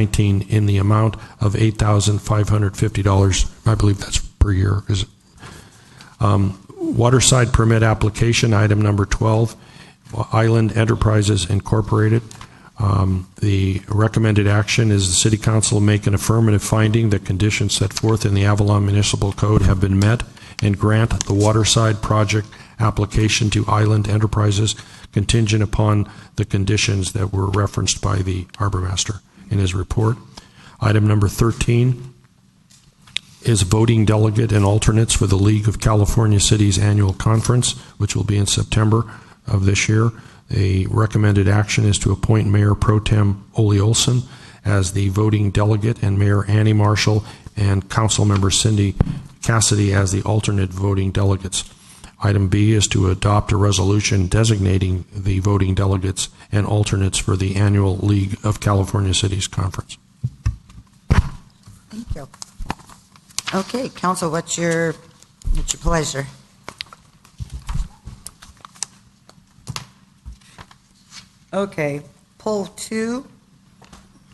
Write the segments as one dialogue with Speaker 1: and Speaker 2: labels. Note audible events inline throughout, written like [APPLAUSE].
Speaker 1: 19 in the amount of $8,550. I believe that's per year, is it? Um, Waterside permit application, item number 12, Island Enterprises Incorporated. Um, The recommended action is the city council make an affirmative finding that conditions set forth in the Avalon Municipal Code have been met and grant the waterside project application to Island Enterprises contingent upon the conditions that were referenced by the harbor master in his report. Item number 13 is voting delegate and alternates for the League of California Cities Annual Conference, which will be in September of this year. A recommended action is to appoint Mayor Pro Tem Ole Olson as the voting delegate and Mayor Annie Marshall and Councilmember Cindy Cassidy as the alternate voting delegates. Item B is to adopt a resolution designating the voting delegates and alternates for the annual League of California Cities Conference.
Speaker 2: Thank you. Okay, council, what's your, what's your pleasure? Okay, poll two.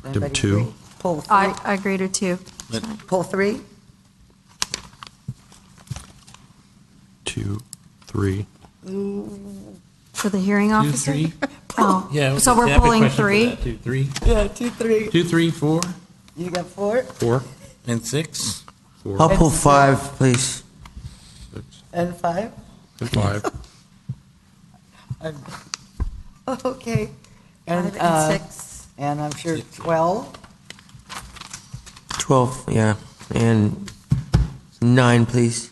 Speaker 2: Anybody
Speaker 1: two.
Speaker 2: agree? Poll three,
Speaker 3: I, I agree to two.
Speaker 2: poll three,
Speaker 1: Two, three.
Speaker 3: For the hearing
Speaker 4: Two,
Speaker 3: officer?
Speaker 4: three?
Speaker 3: Oh,
Speaker 4: Yeah.
Speaker 3: So we're
Speaker 4: I have a
Speaker 3: pulling
Speaker 4: question for
Speaker 3: three?
Speaker 4: that. Two, three,
Speaker 2: yeah, two, three.
Speaker 4: two, three, four,
Speaker 2: You got four,
Speaker 1: Four.
Speaker 4: and six.
Speaker 5: I'll pull five, please.
Speaker 2: and five?
Speaker 1: And five.
Speaker 2: Okay.
Speaker 6: Five
Speaker 2: And,
Speaker 6: and
Speaker 2: uh,
Speaker 6: six.
Speaker 2: and I'm sure 12,
Speaker 5: 12, yeah, and nine, please.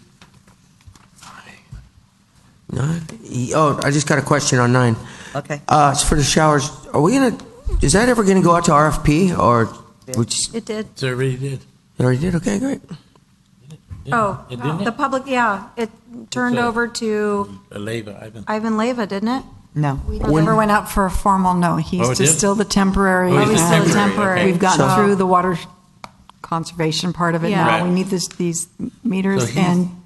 Speaker 5: Nine? E- Oh, I just got a question on nine.
Speaker 2: okay.
Speaker 5: Uh, it's for the showers. Are we gonna, is that ever gonna go out to RFP or, which,
Speaker 3: It did.
Speaker 4: So everybody did.
Speaker 5: it already did? Okay, great.
Speaker 4: Yeah,
Speaker 3: Oh,
Speaker 4: it didn't
Speaker 3: the
Speaker 4: it?
Speaker 3: public, yeah, it turned
Speaker 4: It's a-
Speaker 3: over to
Speaker 4: Aleva, Ivan.
Speaker 3: Ivan Leva, didn't it?
Speaker 2: No.
Speaker 6: Never went out for a formal, no.
Speaker 4: Oh, it
Speaker 6: He's
Speaker 4: did?
Speaker 6: just still the temporary.
Speaker 4: Oh, he's
Speaker 3: just
Speaker 6: and
Speaker 3: temporary, okay.
Speaker 6: We've gotten
Speaker 5: So-
Speaker 6: through the water conservation part of it
Speaker 3: Yeah.
Speaker 6: now. We
Speaker 4: Right.
Speaker 6: need this, these meters.
Speaker 4: So he's-
Speaker 6: And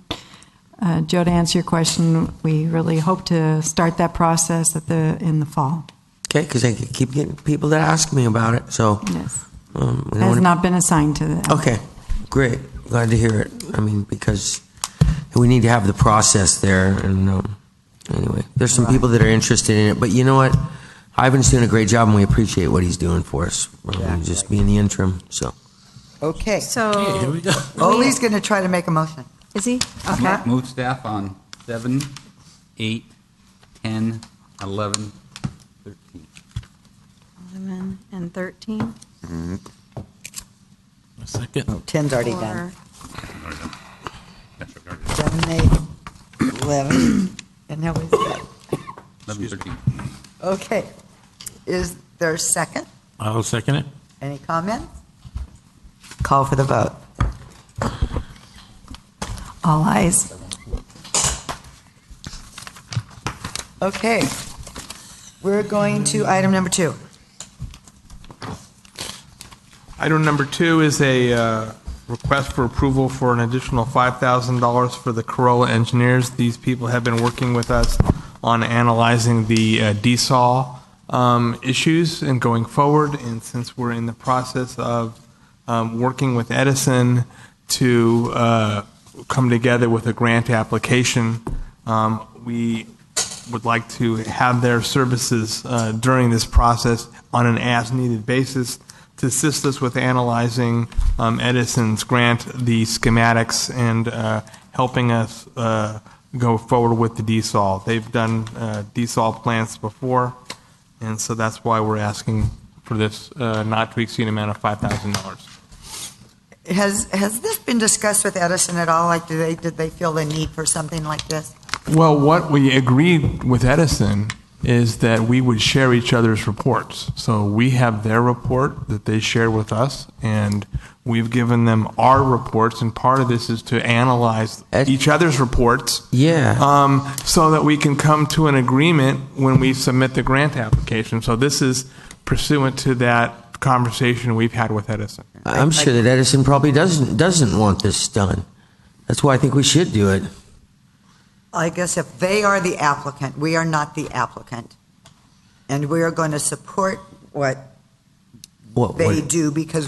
Speaker 6: uh, Joe, to answer your question, we really hope to start that process at the, in the fall.
Speaker 5: Okay, because I keep getting people that ask me about it, so.
Speaker 6: Yes.
Speaker 5: um, we don't
Speaker 6: Has
Speaker 5: wanna-
Speaker 6: not been assigned to
Speaker 4: Oh.
Speaker 6: the.
Speaker 5: Okay, great. Glad to hear it. I mean, because we need to have the process there. And um, anyway, there's some people that are interested in it. But you know what? Ivan's doing a great job, and we appreciate what he's doing for us. Um, just being the interim. So,
Speaker 2: Okay.
Speaker 4: Hey, here
Speaker 3: So, [LAUGHS]
Speaker 4: we go.
Speaker 2: Ollie's going to try to make a motion.
Speaker 3: is he? Okay.
Speaker 7: Mo- Move staff on seven, eight, 10, 11, 13.
Speaker 3: 11 and 13?
Speaker 4: A second.
Speaker 2: 10's already
Speaker 3: Or
Speaker 2: done. 7, 8, 11, and now we've got,
Speaker 7: 11, 13.
Speaker 2: okay. Is there a second?
Speaker 4: I'll second it.
Speaker 2: Any comment? Call for the vote.
Speaker 6: All eyes.
Speaker 2: Okay. We're going to item number two.
Speaker 8: Item number two is a uh, request for approval for an additional $5,000 for the Corolla engineers. These people have been working with us on analyzing the uh, DSAW um, issues and going forward, and since we're in the process of um, working with Edison to uh, come together with a grant application, um, we would like to have their services uh, during this process on an as-needed basis to assist us with analyzing um, Edison's grant, the schematics, and uh, helping us uh, go forward with the DSOL. They've done uh, DSOL plans before, and so that's why we're asking for this uh, not to exceed amount of $5,000.
Speaker 2: Has, has this been discussed with Edison at all? Like, do they, did they feel the need for something like this?
Speaker 8: Well, what we agreed with Edison is that we would share each other's reports. So we have their report that they share with us, and we've given them our reports, and part of this is to analyze
Speaker 5: Ed-
Speaker 8: each other's reports.
Speaker 5: Yeah.
Speaker 8: Um, so that we can come to an agreement when we submit the grant application. So this is pursuant to that conversation we've had with Edison.
Speaker 5: I- I'm sure that Edison probably doesn't doesn't want this done. That's why I think we should do it.
Speaker 2: I guess if they are the applicant, we are not the applicant. And we are going to support what
Speaker 5: What- what-
Speaker 2: They do because